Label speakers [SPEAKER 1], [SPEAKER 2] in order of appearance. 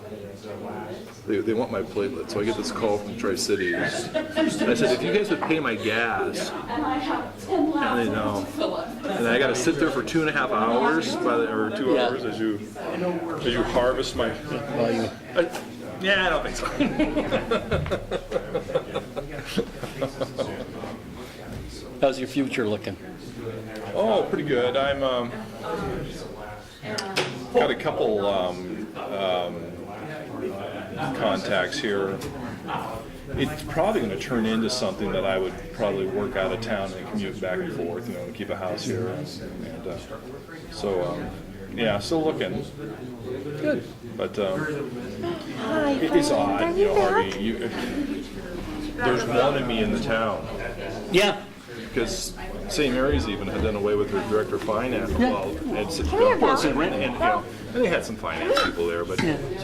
[SPEAKER 1] They, they want my platelet. So I get this call from Tri Cities. I said, if you guys would pay my gas,
[SPEAKER 2] And I have ten
[SPEAKER 1] and
[SPEAKER 2] laps
[SPEAKER 1] they know.
[SPEAKER 2] to fill up.
[SPEAKER 1] And I got to sit there for two and a half hours, by the, or two
[SPEAKER 3] Yeah.
[SPEAKER 1] hours as you as you harvest my. I- yeah, I don't think so.
[SPEAKER 3] How's your future looking?
[SPEAKER 1] oh, pretty good. I'm um, got a couple um, um, contacts here. It's probably going to turn into something that I would probably work out of town and commute back and forth, you know, and keep a house here. And, uh, so, um, yeah, still looking. Good. But um,
[SPEAKER 4] Hi,
[SPEAKER 1] It is
[SPEAKER 4] Frank.
[SPEAKER 1] odd,
[SPEAKER 4] Are
[SPEAKER 1] you
[SPEAKER 4] you
[SPEAKER 1] know,
[SPEAKER 4] back?
[SPEAKER 1] Harvey, you, there's one of me in the town,
[SPEAKER 3] Yeah,
[SPEAKER 1] because St. Mary's even had done away with their director of finance, well, and,
[SPEAKER 4] Hey,
[SPEAKER 1] well,
[SPEAKER 4] Val.
[SPEAKER 1] and, and, you know, and they had some finance people there, but